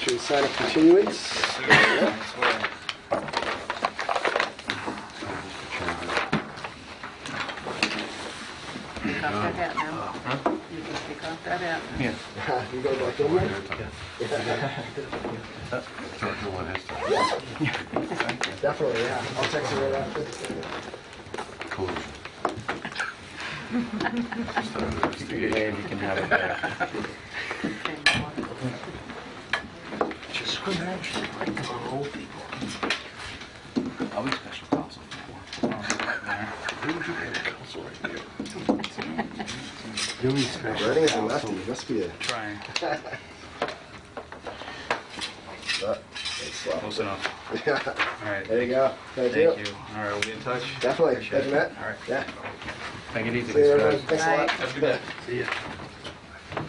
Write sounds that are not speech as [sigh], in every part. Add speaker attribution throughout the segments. Speaker 1: Should we sign a continuance? [laughs]
Speaker 2: Take off that hat now. You can take off that hat.
Speaker 3: Yeah.
Speaker 1: You go back in there? Definitely, yeah. I'll text you right after.
Speaker 3: Today, you can have it back.
Speaker 4: Just imagine, like, our old people.
Speaker 3: I'll be special counsel for
Speaker 4: Who would you get a council right there?
Speaker 5: Billy's special
Speaker 1: Writing is a
Speaker 5: counsel.
Speaker 1: lefty, must be a...
Speaker 3: Trying,
Speaker 1: uh, it's left.
Speaker 3: close enough. All
Speaker 1: [laughs]
Speaker 3: right,
Speaker 1: There you go. Thank
Speaker 3: thank
Speaker 1: you.
Speaker 3: you. All right, we'll be in touch.
Speaker 1: Definitely.
Speaker 3: Appreciate
Speaker 1: Thank you,
Speaker 3: it.
Speaker 1: Matt.
Speaker 3: All right,
Speaker 1: Yeah.
Speaker 3: take it easy.
Speaker 1: See you, everyone.
Speaker 3: guys.
Speaker 1: Thanks a lot.
Speaker 2: Bye.
Speaker 1: Have a good day.
Speaker 4: See ya.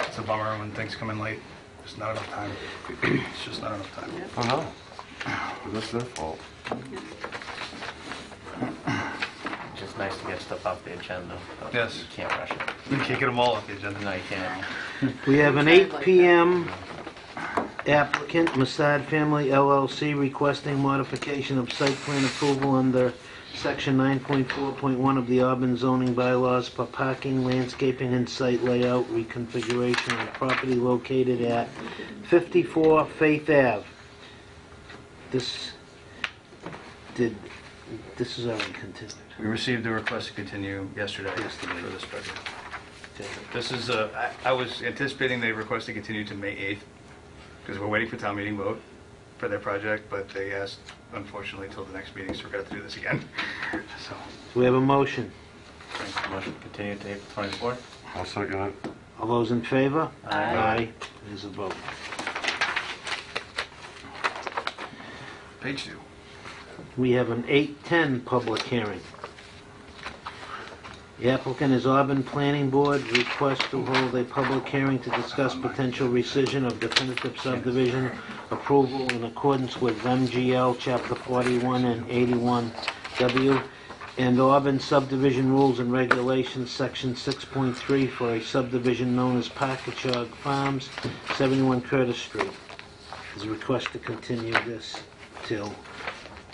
Speaker 3: It's a bummer when things come in late. There's not enough [clears throat] time. It's just not enough time.
Speaker 5: Oh, no. Well, That's their fault.
Speaker 6: Just nice to get stuff off the agenda. but
Speaker 3: Yes.
Speaker 6: You can't rush it.
Speaker 3: We can't get them all off the agenda.
Speaker 6: No, you can't.
Speaker 7: We have an 8 PM applicant, Masad Family LLC, requesting modification of site plan approval under section 9.4.1 of the Auburn zoning bylaws for parking, landscaping, and site layout reconfiguration of property located at 54 Faith Ave. This, did, this is already continued.
Speaker 3: We received the request to continue yesterday for this project. This is, uh, I I was anticipating they request to continue to May 8th, because we're waiting for town meeting vote for their project, but they asked unfortunately till the next meeting, so we're going to have to do this again. [laughs] So,
Speaker 7: Do we have a motion?
Speaker 6: Motion to continue to April 24th?
Speaker 5: I'll second it.
Speaker 7: All those in favor?
Speaker 6: Aye.
Speaker 7: It is a vote.
Speaker 3: page two.
Speaker 7: We have an 8:10 public hearing. The applicant is Auburn Planning Board, request to hold a public hearing to discuss potential rescission of definitive subdivision approval in accordance with MGL Chapter 41 and 81W and Auburn subdivision rules and regulations, Section 6.3 for a subdivision known as Packagug Farms, 71 Curtis Street. Is a request to continue this till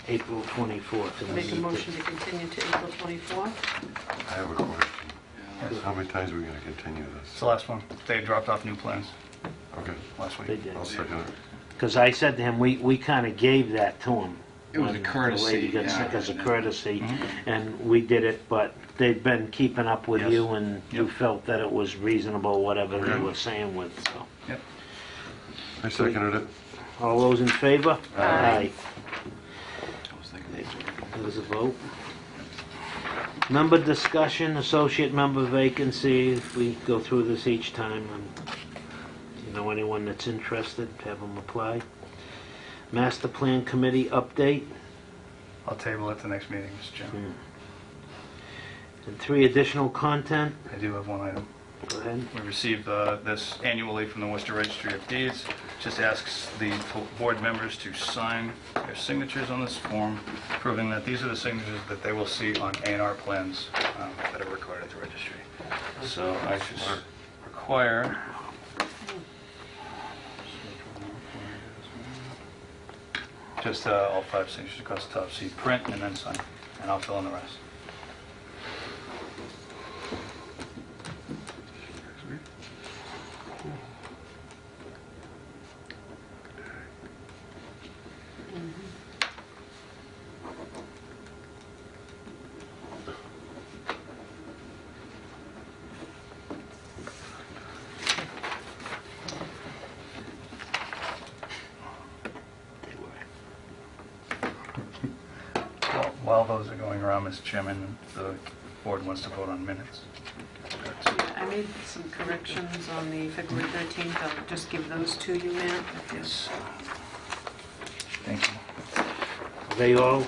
Speaker 7: April 24th. and we
Speaker 2: Make a
Speaker 7: need to-
Speaker 2: motion to continue to April 24th.
Speaker 5: I have a question. How many times are we gonna continue
Speaker 3: It's
Speaker 5: this?
Speaker 3: the last one. They dropped off new plans
Speaker 5: Okay,
Speaker 3: last week.
Speaker 7: They did.
Speaker 5: I'll second it.
Speaker 7: Because I said to him, we, we kind of gave that to him.
Speaker 3: It was a
Speaker 7: when
Speaker 3: courtesy,
Speaker 7: The lady got
Speaker 3: yeah. Mm-hmm.
Speaker 7: sick as a courtesy, and we did it, but they've been keeping up with
Speaker 3: Yes.
Speaker 7: you, and you
Speaker 3: Yep.
Speaker 7: felt that it was reasonable, whatever they
Speaker 5: Okay.
Speaker 7: were saying with, so.
Speaker 3: Yep.
Speaker 5: I seconded it.
Speaker 7: All those in favor?
Speaker 2: Aye.
Speaker 3: I was thinking these were-
Speaker 7: Aye. There's a vote. Number discussion, associate member vacancy, we go through this each time, and you know anyone that's interested, have them apply. Master Plan Committee update.
Speaker 3: I'll table it the next meeting, Mr. Chairman.
Speaker 7: And three additional content,
Speaker 6: Hmm.
Speaker 3: I do have one item.
Speaker 7: go ahead.
Speaker 3: We receive uh, this annually from the Worcester Registry of Deeds. Just asks the board members to sign their signatures on this form, proving that these are the signatures that they will see on A&R plans um, that are recorded at the registry. So I should require... Just uh, all five signatures across the top, so you print and then sign, and I'll fill in the rest. Well, While those are going around, Mr. Chairman, the board wants to vote on minutes.
Speaker 2: I made some corrections on the February 13th. I'll just give those to you, Matt.
Speaker 3: Yes. Thank you.
Speaker 7: They all,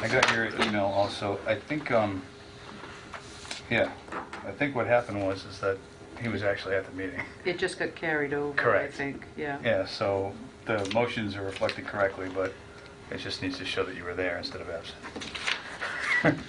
Speaker 3: I got your email also. I think, um, yeah, I think what happened was is that he was actually at the meeting. [laughs]
Speaker 2: It just got carried over, I
Speaker 3: Correct.
Speaker 2: think, yeah.
Speaker 3: Yeah, so the motions are reflected correctly, but it just needs to show that you were there instead of absent.